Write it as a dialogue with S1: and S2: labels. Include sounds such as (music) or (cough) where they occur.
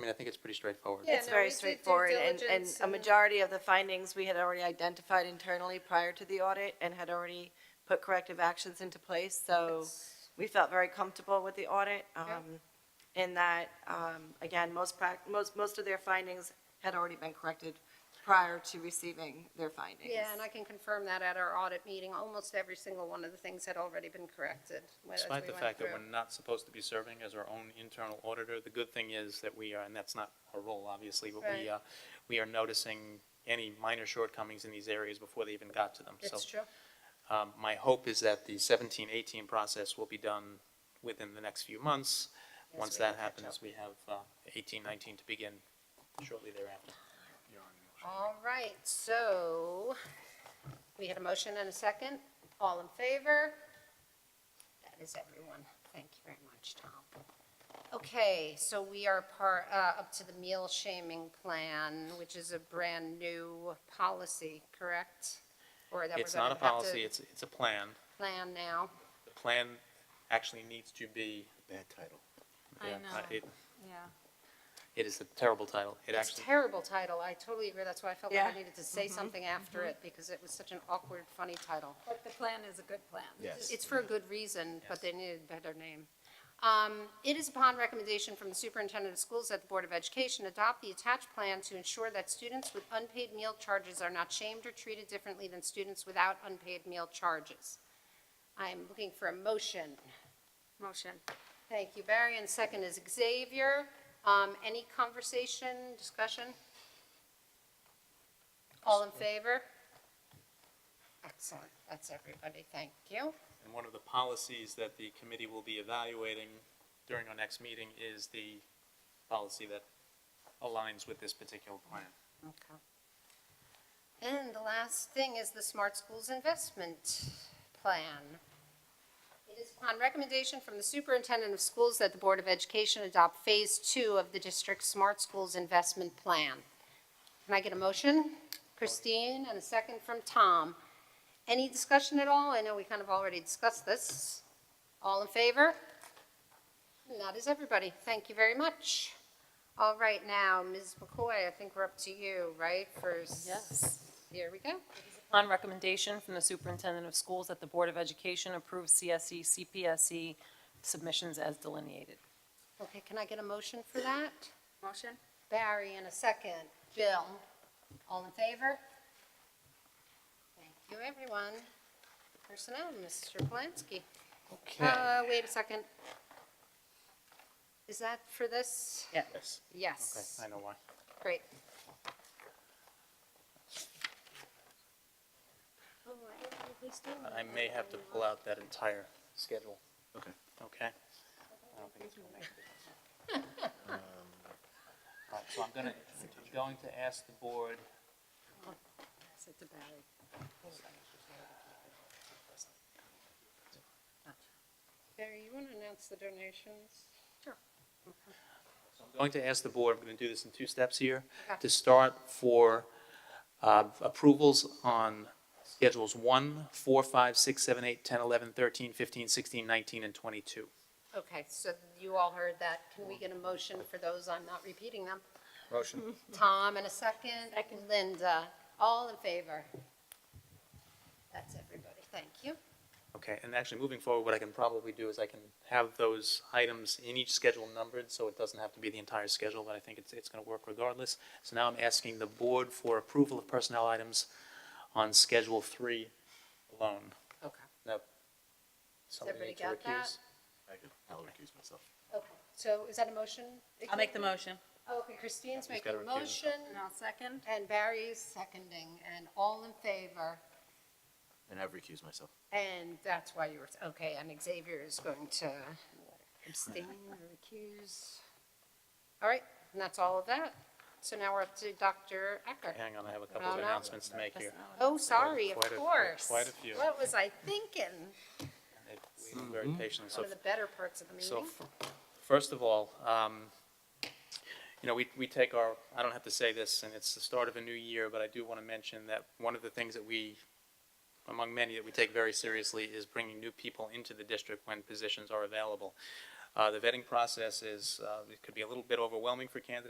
S1: mean, I think it's pretty straightforward.
S2: Yeah,
S3: It's
S2: no, we
S3: very
S2: did due
S3: straightforward, and, and
S2: diligence
S3: a
S2: and-
S3: majority of the findings we had already identified internally prior to the audit and had already put corrective actions into place, so
S2: It's-
S3: we felt very comfortable with the audit.
S2: Yeah.
S3: um, In that, um, again, most prac, most, most of their findings had already been corrected prior to receiving their findings.
S2: Yeah, and I can confirm that at our audit meeting, almost every single one of the things had already been corrected. when- as
S1: Despite
S2: we
S1: the
S2: went
S1: fact that
S2: through.
S1: we're not supposed to be serving as our own internal auditor, the good thing is that we are, and that's not our role, obviously, but
S2: Right.
S1: we, uh, we are noticing any minor shortcomings in these areas before they even got to them. So
S2: It's true.
S1: um, My hope is that the 17, 18 process will be done within the next few months.
S2: Yes,
S1: Once
S2: we
S1: that
S2: can catch
S1: happens, we have uh, 18, 19 to begin shortly thereafter.
S2: All right, so we had a motion and a second. All in favor? That is everyone. Thank you very much, Tom. Okay, so we are par, uh, up to the meal shaming plan, which is a brand-new policy, correct? Or that we're
S1: It's not a
S2: gonna have to
S1: policy, it's, it's a plan.
S2: Plan now.
S1: The plan actually needs to be.
S4: Bad title.
S5: I
S1: Yeah, uh,
S5: know.
S1: it-
S5: Yeah.
S1: It is a terrible title. It
S2: It's
S1: actually.
S2: a terrible title. I totally agree. That's why I felt like I
S3: Yeah.
S2: needed to say something after it, because it was such an awkward, funny title.
S5: But the plan is a good plan.
S4: Yes.
S2: It's for a good reason, but they needed a better name. Um, It is upon recommendation from the superintendent of schools that the Board of Education adopt the attached plan to ensure that students with unpaid meal charges are not shamed or treated differently than students without unpaid meal charges. I'm looking for a motion.
S5: Motion.
S2: Thank you, Barry, and second is Xavier. Um, Any conversation, discussion? All in favor? Excellent, that's everybody, thank you.
S1: And one of the policies that the committee will be evaluating during our next meeting is the policy that aligns with this particular plan.
S2: Okay. And the last thing is the Smart Schools Investment Plan. It is upon recommendation from the Superintendent of Schools that the Board of Education adopt Phase Two of the district's Smart Schools Investment Plan. Can I get a motion? Christine, and a second from Tom. Any discussion at all? I know we kind of already discussed this. All in favor? And that is everybody. Thank you very much. All right, now, Ms. McCoy, I think we're up to you, right? First,
S6: Yes.
S2: Here we go.
S6: Upon recommendation from the superintendent of schools that the Board of Education approve E, CSE, CPSE submissions as delineated.
S2: Okay, can I get a motion for that?
S5: Motion?
S2: Barry in a second. Bill, all in favor? Thank you, everyone. Personnel, Mr. Polanski. Uh, wait a second. Is that for this?
S1: Yes. Okay,
S2: Yes.
S1: I know why.
S2: Great.
S1: I may have to pull out that entire schedule,
S4: Okay.
S1: okay? I don't think it's gonna make it.
S5: (laughs)
S1: All right, so I'm gonna, I'm going to ask the board
S2: Sit to Barry. Barry, you want to announce the donations?
S1: So I'm going to ask the board, I'm going to do this in two steps here,
S2: Okay.
S1: to start for uh, approvals on schedules 1, 4, 5, 6, 7, 8, 10, 11, 13, 15, 16, 19, and 22.
S2: Okay, so you all heard that. Can we get a motion for those? I'm not repeating them.
S4: Motion.
S2: Tom in a second. Linda, all in favor? That's everybody. Thank you.
S1: Okay, and actually, moving forward, what I can probably do is I can have those items in each schedule numbered, so it doesn't have to be the entire schedule, but I think it's, it's going to work regardless. So now I'm asking the board for approval of personnel items on Schedule 3 alone.
S2: Okay.
S1: Now, somebody
S2: everybody
S1: need to
S2: got that?
S1: recuse?
S4: I'll recuse myself.
S2: Okay, so is that a motion?
S6: I'll make the motion.
S2: Okay, Christine's
S1: He's
S2: making
S1: gotta
S2: a
S1: recuse
S2: motion,
S1: himself.
S5: And I'll second.
S2: and Barry's seconding, and all in favor.
S4: And I've recused myself.
S2: And that's why you were, okay, and Xavier is going to abstain or recuse. All right, and that's all of that. So now we're up to Dr. Ecker.
S1: Hang on, I have a couple
S2: No,
S1: of
S2: no.
S1: announcements to make here.
S2: Oh, sorry, of
S1: quite a-
S2: course.
S1: quite a few.
S2: What was I thinking?
S1: They were Very patient, so,
S2: One of the better parts of the
S1: so,
S2: meeting.
S1: f- first of all, um, you know, we, we take our, I don't have to say this, and it's the start of a new year, but I do want to mention that one of the things that we, among many that we take very seriously, is bringing new people into the district when positions are available. Uh, the vetting process is, uh, it could be a little bit overwhelming for candidates